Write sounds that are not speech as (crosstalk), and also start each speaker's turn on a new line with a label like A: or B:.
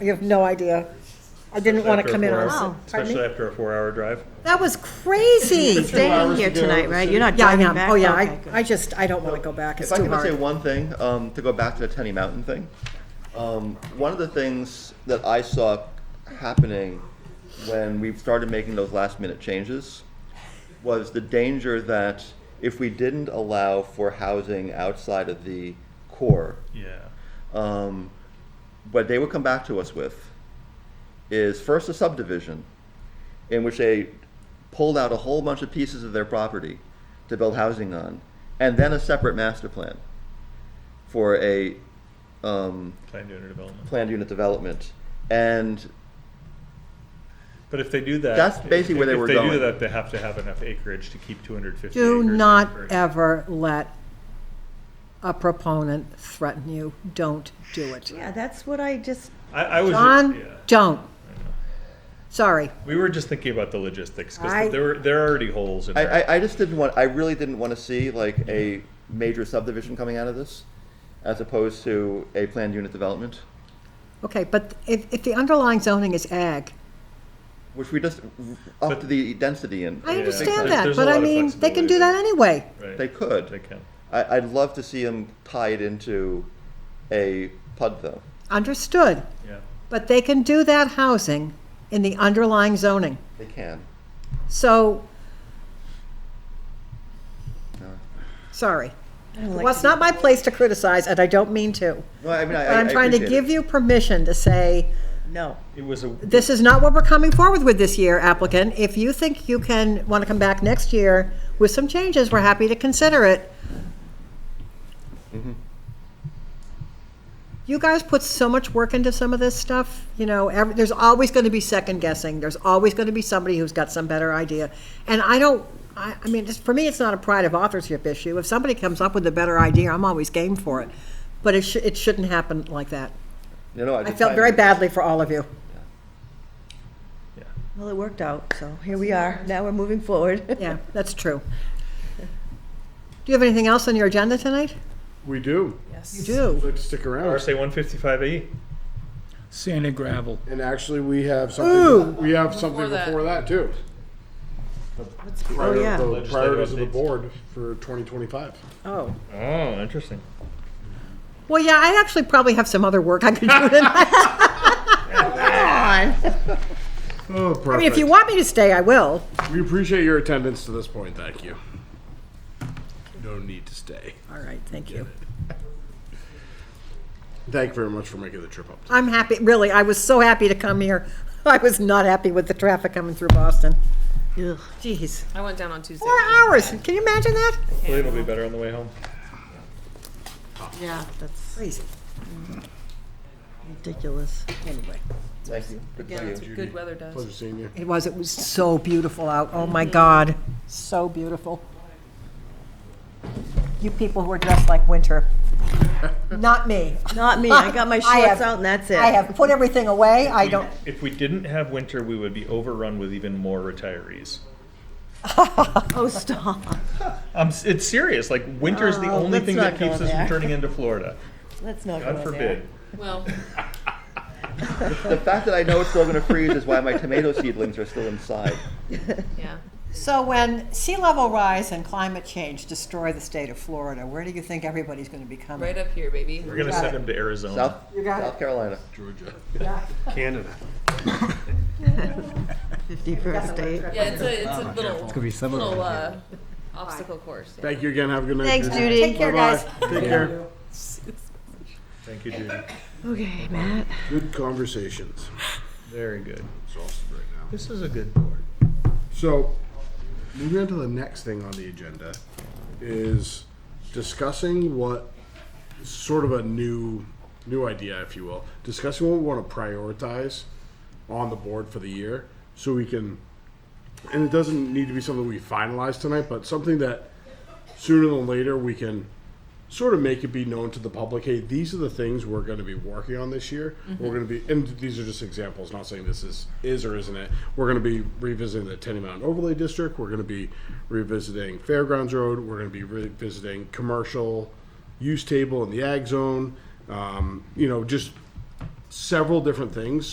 A: You have no idea. I didn't want to
B: After a
A: come in on.
B: four-hour-
A: Sun- Pardon
B: Especially
A: me?
B: after a four-hour drive.
A: That was crazy.
C: Staying
D: hours
C: here
D: to go
C: tonight,
D: to
C: right?
D: the
C: You're not
A: Yeah, I
C: driving
A: am.
C: back?
A: Oh, yeah,
C: Okay,
A: I,
C: good.
A: I just, I don't want to go back. It's
D: If I
A: too
D: can say
A: hard.
D: one thing, um, to go back to the Tenny Mountain thing, um, one of the things that I saw happening when we started making those last minute changes was the danger that if we didn't allow for housing outside of the core,
B: Yeah.
D: um, what they would come back to us with is first a subdivision in which they pulled out a whole bunch of pieces of their property to build housing on, and then a separate master plan for a um,
B: Planned unit development.
D: planned unit development. And
B: But if they do that.
D: That's basically where they
B: if
D: were
B: If they do
D: going.
B: that, they have to have enough acreage to keep two hundred fifty
C: Do
B: acres.
C: not
B: for-
C: ever let a proponent threaten you. Don't do it.
A: Yeah, that's what I just,
B: I, I was. yeah.
C: John, don't. Sorry.
B: We were just thinking about the logistics,
A: I-
B: because there were, there are already holes in
D: I,
B: there.
D: I, I just didn't want, I really didn't want to see like a major subdivision coming out of this as opposed to a planned unit development,
C: Okay, but if, if the underlying zoning is ag,
D: which we just upped the density in.
C: I
B: Yeah.
C: understand
B: There's-
C: that,
B: there's a
C: but
B: lot
C: I
B: of
C: mean, they can
B: flexibility
C: do that anyway.
B: Right.
D: They could.
B: They can.
D: I, I'd love to see him tied into a PUD though.
C: Understood.
B: Yeah.
C: But they can do that housing in the underlying zoning.
D: They can.
C: So,
D: No.
C: sorry.
A: like
C: Well, it's not my place to criticize, and I don't mean to.
D: No, I mean, I,
C: But I'm trying to give you permission to say,
A: no.
B: It was a,
C: this is not what we're coming forward with this year, applicant. If you think you can, want to come back next year with some changes, we're happy to consider it. You guys put so much work into some of this stuff, you know, every, there's always going to be second guessing. There's always going to be somebody who's got some better idea. And I don't, I, I mean, just, for me, it's not a pride of authorship issue. If somebody comes up with a better idea, I'm always game for it. But it, sh- it shouldn't happen like that.
D: You know,
C: I felt very badly for all of you.
B: yeah.
A: Well, it worked out, so here we are. Now we're moving forward.
C: (laughs) Yeah, that's true. Do you have anything else on your agenda tonight?
E: We do.
C: You do.
E: Like to stick around.
B: RSA one fifty-five E.
F: Sand and gravel.
E: And actually, we have something. We have something before that too. Prior-
C: yeah.
E: the
B: Legislative
E: Priorities of the
B: updates.
E: board for 2025.
C: Oh.
B: Oh, interesting.
C: Well, yeah, I actually probably have some other work I could do (laughs) tonight.
E: Oh,
C: I mean, if you
E: perfect.
C: want me to stay, I will.
E: We appreciate your attendance to this point. Thank you. No need to stay.
C: All right, thank you.
E: Thank you very much for making the trip up.
C: I'm happy, really, I was so happy to come here. (laughs) I was not happy with the traffic coming through Boston. Jeez.
G: I went down on Tuesday.
C: Four hours, can you imagine that?
B: Hopefully it'll be better on the way home.
G: Yeah, that's
C: Crazy.
G: ridiculous.
C: Anyway,
D: Thank you. Good
G: Yeah,
D: for you.
G: that's what good weather does.
E: Pleasure seeing you.
C: it was, it was so beautiful out, oh my God, so beautiful. You people who are dressed like
A: (laughs)
C: winter. Not me.
A: Not me. I got
C: (laughs)
A: my
C: I
A: shorts
C: have-
A: out and that's it.
C: I have put everything away,
A: (laughs)
C: I don't,
B: If we didn't have winter, we would be overrun with even more retirees.
A: Oh, stop.
B: Um, s- it's serious. Like winter's the only
A: Oh, let's
B: thing
A: not
B: that
A: go
B: keeps us
A: there.
B: from turning into Florida.
A: Let's not
B: God
A: go
B: forbid.
A: there.
G: Well,
D: The fact that I know it's still going to freeze is why my tomato seedlings are still inside.
G: yeah.
C: So when sea level rise and climate change destroy the state of Florida, where do you think everybody's going to be coming?
G: Right up here, baby.
B: We're gonna send him to Arizona.
D: South,
C: got
D: South Carolina.
E: Canada.
A: Fifty-first date.
G: Yeah, it's a, it's a little,
F: Could be some
G: little,
F: of
G: uh, obstacle course. yeah.
E: Thank you again. Have a good night.
A: Thanks,
E: Judy.
A: Judy.
C: Take care, guys.
E: Take care.
B: Thank you, Judy.
E: Good conversations.
B: Very good.
E: Exhausted right now.
B: This is a good board.
E: So, moving on to the next thing on the agenda is discussing what sort of a new new idea, if you will, discussing what we want to prioritize on the board for the year, so we can. And it doesn't need to be something we finalize tonight, but something that sooner than later we can sort of make it be known to the public hey these are the things we're going to be working on this year we're going to be and these are just examples not saying this is is or isn't it we're going to be revisiting the tenny mountain overlay district we're going to be revisiting fairgrounds road we're going to be revisiting commercial use table in the ag zone um, you know just several different things